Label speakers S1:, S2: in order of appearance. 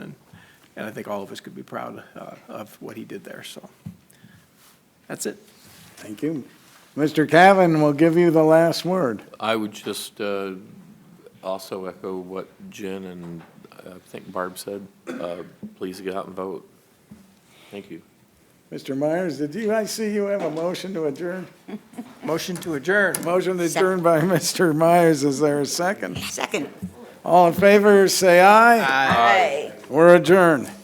S1: And I think all of us could be proud uh, of what he did there, so. That's it.
S2: Thank you. Mr. Cavan will give you the last word.
S3: I would just uh, also echo what Jen and uh, I think Barb said. Uh, Please get out and vote. Thank you.
S2: Mr. Myers, did you, I see you have a motion to adjourn?
S1: Motion to adjourn.
S2: Motion to adjourn by Mr. Myers. Is there a second?
S4: Second.
S2: All in favor, say aye.
S4: Aye.
S2: We're adjourned.